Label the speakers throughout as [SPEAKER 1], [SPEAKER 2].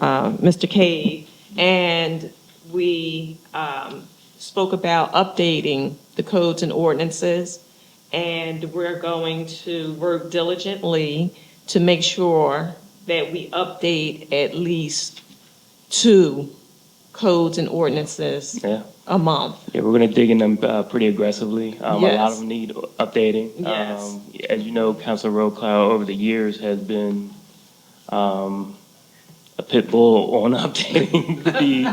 [SPEAKER 1] uh, Mr. Cade, and we um, spoke about updating the codes and ordinances, and we're going to work diligently to make sure that we update at least two codes and ordinances
[SPEAKER 2] Yeah,
[SPEAKER 1] a month.
[SPEAKER 2] yeah, we're gonna dig in them uh, pretty aggressively. Um, A lot
[SPEAKER 1] Yes.
[SPEAKER 2] of them need updating.
[SPEAKER 1] Yes.
[SPEAKER 2] Um, As you know, Council Road Cloud over the years has been um, a pit bull on updating the,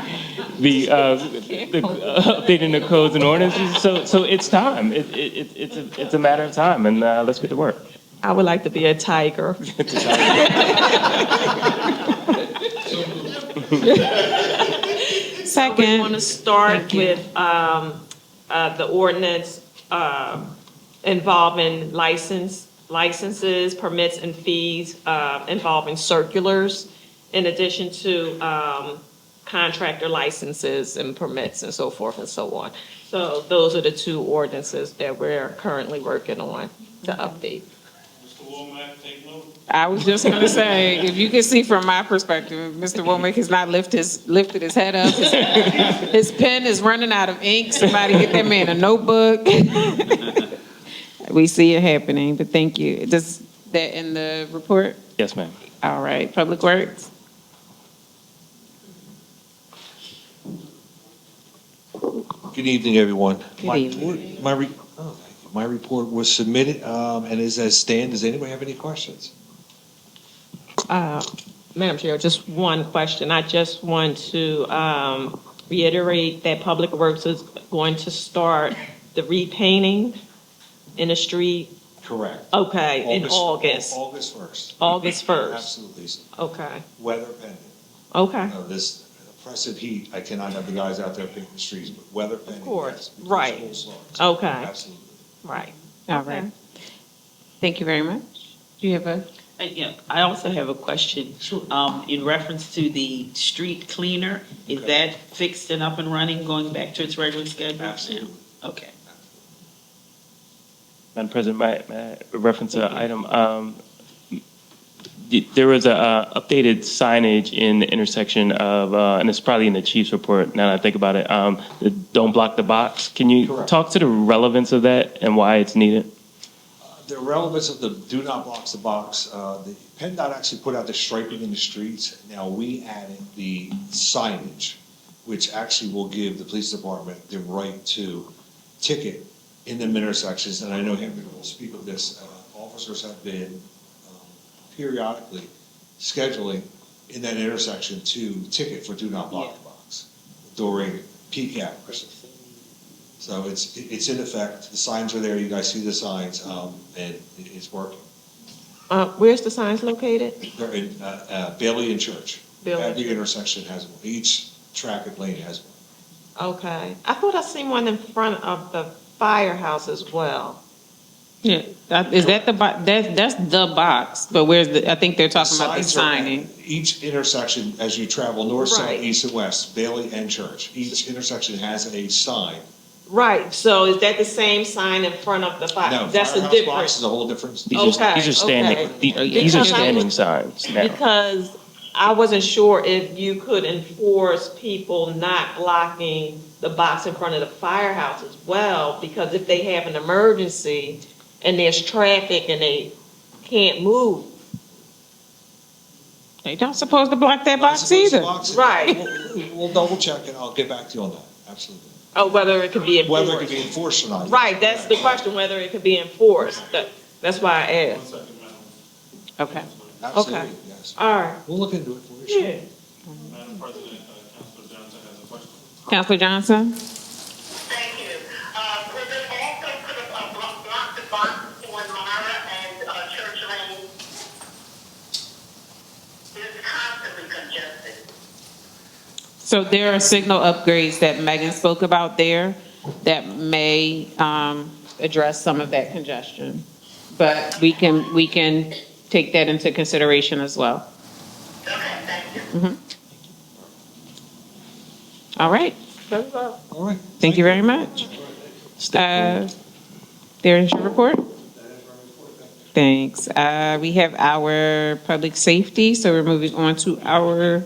[SPEAKER 2] the, uh, the, uh, updating the codes and ordinances. So, so it's time. It, it, it- it's, a- it's a matter of time, and uh, let's get to work.
[SPEAKER 1] I would like to be a tiger.
[SPEAKER 3] We
[SPEAKER 1] Second.
[SPEAKER 3] want to start with um, uh, the ordinance um,
[SPEAKER 1] uh, involving license, licenses, permits, and fees uh, involving circulars, in addition to um, contractor licenses and permits and so forth and so on. So those are the two ordinances that we're currently working on to update.
[SPEAKER 4] Mr. Womack, take note.
[SPEAKER 5] I was just gonna say, if you can see from my perspective, Mr. Womack has not lifted his, lifted his head up. His- His pen is running out of ink. Somebody get that man a notebook. We see it happening, but thank you. Does that in the report?
[SPEAKER 2] Yes, ma'am.
[SPEAKER 5] All right, Public Works?
[SPEAKER 6] Good evening, everyone. My
[SPEAKER 5] evening.
[SPEAKER 6] report- My, re- oh, thank you. my report was submitted um, and is as stand. Does anybody have any questions?
[SPEAKER 1] Madam Chair, just one question. I just want to um, reiterate that Public Works is going to start the repainting in the street,
[SPEAKER 6] Correct.
[SPEAKER 1] okay, in August,
[SPEAKER 6] August 1st.
[SPEAKER 1] August 1st.
[SPEAKER 6] Absolutely.
[SPEAKER 1] Okay,
[SPEAKER 6] Weather pending.
[SPEAKER 1] okay.
[SPEAKER 6] No, this oppressive heat, I cannot have the guys out there picking the streets, but weather pending.
[SPEAKER 1] course,
[SPEAKER 6] yes, before
[SPEAKER 1] right.
[SPEAKER 6] school starts.
[SPEAKER 1] Okay.
[SPEAKER 6] Absolutely.
[SPEAKER 1] Right.
[SPEAKER 5] All right. Thank you very much. Do you have a?
[SPEAKER 3] Uh, Yeah, I also have a question.
[SPEAKER 6] Sure.
[SPEAKER 3] Um, in reference to the street cleaner, is
[SPEAKER 6] Okay.
[SPEAKER 3] that fixed and up and running, going back to its regular schedule? now?
[SPEAKER 6] Absolutely.
[SPEAKER 3] Okay.
[SPEAKER 2] Madam President, may, may I reference an item? Um, th- there was a uh, updated signage in the intersection of, uh, and it's probably in the chief's report. Now that I think about it, um, the "Don't block the box." Can you
[SPEAKER 6] Correct.
[SPEAKER 2] talk to the relevance of that and why it's needed?
[SPEAKER 6] The relevance of the do not block the box, uh, the PennDOT actually put out the striping in the streets. Now we added the signage, which actually will give the police department the right to ticket in them intersections. And I know Henry will speak of this. Uh, Officers have been um, periodically scheduling in that intersection to ticket for do not block the box during peak hours. So it's, it's in effect, the signs are there, you guys see the signs, um, and it- it's working.
[SPEAKER 1] Uh, Where's the signs located?
[SPEAKER 6] They're in, uh, uh, Bailey and Church.
[SPEAKER 1] Bailey.
[SPEAKER 6] Every intersection has one, each traffic lane has one.
[SPEAKER 1] Okay. I thought I seen one in front of the firehouse as well.
[SPEAKER 5] Yeah, that- is that the, bo- that's, that's the box, but where's the, I think they're talking about the
[SPEAKER 6] Signs are at
[SPEAKER 5] signing.
[SPEAKER 6] Each intersection, as you travel north,
[SPEAKER 1] Right.
[SPEAKER 6] south, east, and west, Bailey and Church, each intersection has a sign.
[SPEAKER 1] Right, so is that the same sign in front of the
[SPEAKER 6] No,
[SPEAKER 1] fire? That's a
[SPEAKER 6] Firehouse Box
[SPEAKER 1] difference.
[SPEAKER 6] is a whole different.
[SPEAKER 2] These are-
[SPEAKER 1] Okay,
[SPEAKER 2] these are standing.
[SPEAKER 1] okay.
[SPEAKER 2] the- These are
[SPEAKER 1] Because I
[SPEAKER 2] standing
[SPEAKER 1] was-
[SPEAKER 2] signs now.
[SPEAKER 1] Because I wasn't sure if you could enforce people not blocking the box in front of the firehouse as well, because if they have an emergency and there's traffic and they can't move,
[SPEAKER 5] They don't suppose to block that
[SPEAKER 6] Not
[SPEAKER 5] box
[SPEAKER 6] supposed to
[SPEAKER 5] either.
[SPEAKER 6] box it.
[SPEAKER 1] Right.
[SPEAKER 6] We'll- We'll double check and I'll get back to you on that, absolutely.
[SPEAKER 1] or oh, whether it could be enforced.
[SPEAKER 6] Whether it can be enforced or not.
[SPEAKER 1] Right, that's the question, whether it could be enforced. That, that's why I
[SPEAKER 4] One
[SPEAKER 1] asked.
[SPEAKER 4] second, Madam.
[SPEAKER 5] Okay.
[SPEAKER 6] Absolutely, yes.
[SPEAKER 1] All right.
[SPEAKER 6] We'll look into it for you. sure.
[SPEAKER 1] Yeah.
[SPEAKER 4] Madam President, uh, Councilor Johnson has a question.
[SPEAKER 5] Counselor Johnson?
[SPEAKER 7] Thank you. Uh, was it also could have uh, block- blocked the box on Mara and uh, Church Lane? It's constantly congested.
[SPEAKER 5] So there are signal upgrades that Megan spoke about there that may um, address some of that congestion. But we can, we can take that into consideration as well.
[SPEAKER 7] Okay, thank you.
[SPEAKER 5] All right,
[SPEAKER 1] That's all.
[SPEAKER 6] All right.
[SPEAKER 5] thank you very much. Uh, There's your report. Thanks. Uh, We have our public safety, so we're moving on to our